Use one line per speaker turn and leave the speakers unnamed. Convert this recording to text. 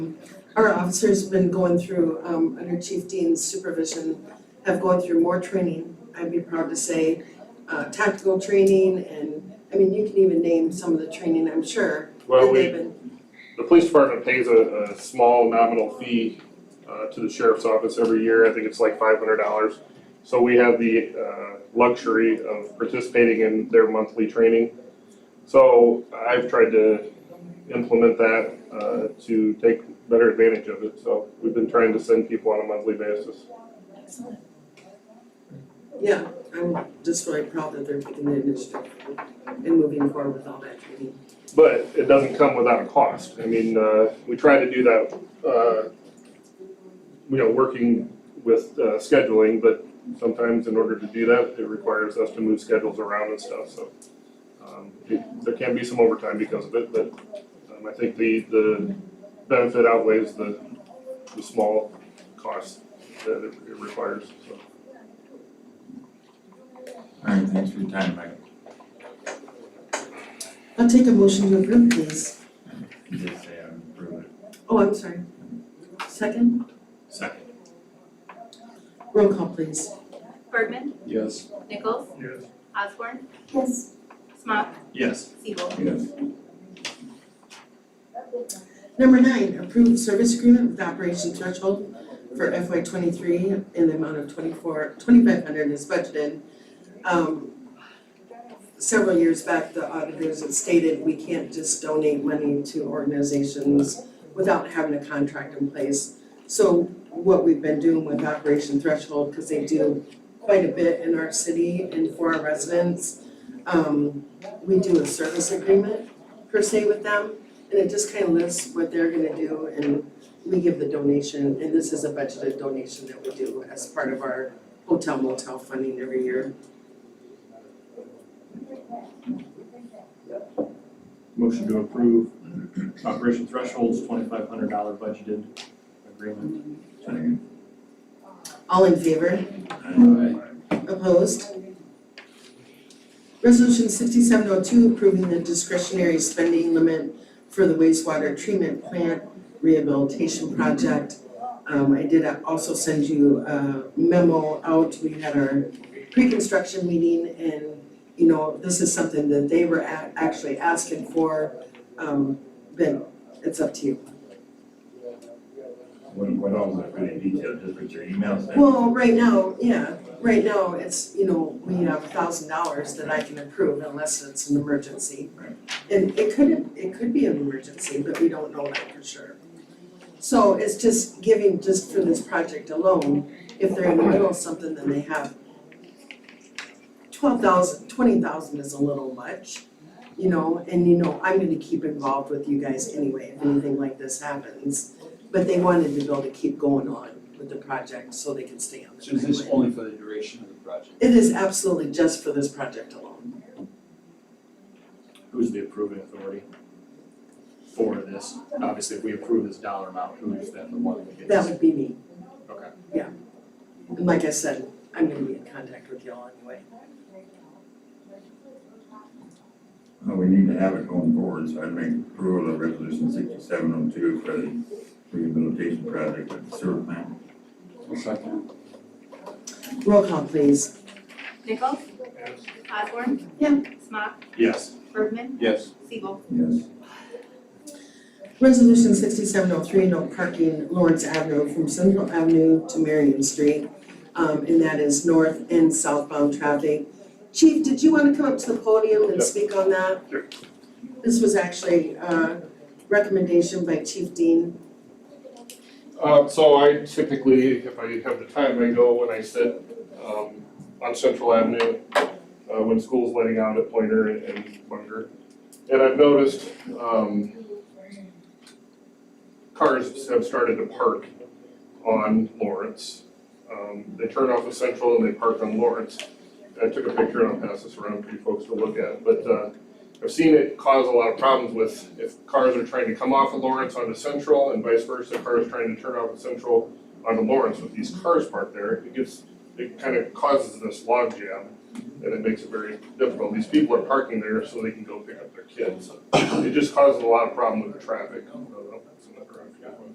um our officers have been going through um under Chief Dean's supervision, have gone through more training, I'd be proud to say, uh tactical training and I mean, you can even name some of the training, I'm sure,
Well,
that
we,
they've been,
the police department pays a, a small nominal fee, uh, to the sheriff's office every year, I think it's like five hundred dollars. So we have the, uh, luxury of participating in their monthly training. So I've tried to implement that, uh, to take better advantage of it, so we've been trying to send people on a monthly basis.
Excellent.
yeah, I'm just really proud that they're picking the initiative and moving forward with all that training.
But it doesn't come without a cost. I mean, uh, we try to do that, uh, you know, working with uh, scheduling, but sometimes in order to do that, it requires us to move schedules around and stuff, so. um, it- There can be some overtime because of it, but um, I think the, the benefit outweighs the, the small cost that it it requires, so.
All right, thanks for your time, Mike.
I'll take a motion to approve, please.
You did say I'm approving.
Oh, I'm sorry. Second,
Second.
roll call please.
Bergman,
Yes.
Nichols,
Yes.
Osborne,
Yes.
Smough,
Yes.
Siebel.
Yes.
Number nine, approved service agreement with Operation Threshold for FY twenty-three in the amount of twenty-four, twenty-five hundred is budgeted. Um, several years back, the auditors had stated we can't just donate money to organizations without having a contract in place. So what we've been doing with Operation Threshold, because they do quite a bit in our city and for our residents, um, we do a service agreement per se with them. And it just kind of lists what they're gonna do and we give the donation, and this is a budgeted donation that we do as part of our hotel motel funding every year.
Motion to approve Operation Threshold's twenty-five hundred dollar budgeted agreement.
Second.
All in favor? Opposed? Resolution sixty-seven oh two approving the discretionary spending limit for the wastewater treatment plant rehabilitation project. Um, I did also send you a memo out, we had our pre-construction meeting and, you know, this is something that they were a- actually asking for, um, but it's up to you.
What, what all was that really detailed, just what your email said?
Well, right now, yeah, right now, it's, you know, we have a thousand dollars that I can approve unless it's an emergency.
Right.
And it could, it could be an emergency, but we don't know that for sure. So it's just giving, just for this project alone, if they're in the middle of something, then they have twelve thousand, twenty thousand is a little much, you know, and you know, I'm gonna keep involved with you guys anyway, if anything like this happens. But they wanted to be able to keep going on with the project so they can stay on the
So is this
timeline.
only for the duration of the project?
It is absolutely just for this project alone.
Who's the approving authority for this? Obviously, if we approve this dollar amount, who is then the one that
That
gets?
would be me.
Okay.
Yeah. And like I said, I'm gonna be in contact with y'all anyway.
Well, we need to have it going forward, so I'd make approval of resolution sixty-seven oh two for the rehabilitation project at the sewer plant.
Second.
Roll call please.
Nichols, Osborne.
Yeah.
Smough,
Yes.
Bergman,
Yes.
Siebel.
Yes.
Resolution sixty-seven oh three, no parking Lawrence Avenue from Central Avenue to Marion Street. Um, and that is north and southbound traffic. Chief, did you wanna come up to the podium and
Yep.
speak on that?
Sure.
This was actually a recommendation by Chief Dean.
Uh, so I typically, if I have the time, I go and I sit, um, on Central Avenue, uh, when school's letting out at Pointer and- and Bunker. And I've noticed, um, cars have started to park on Lawrence. Um, they turn off of Central and they park on Lawrence. I took a picture and I'll pass this around for you folks to look at, but, uh, I've seen it cause a lot of problems with if cars are trying to come off of Lawrence onto Central and vice versa, cars trying to turn off of Central onto Lawrence with these cars parked there, it gets, it kind of causes this logjam and it makes it very difficult. These people are parking there so they can go pick up their kids. It just causes a lot of problem with the traffic. I don't know.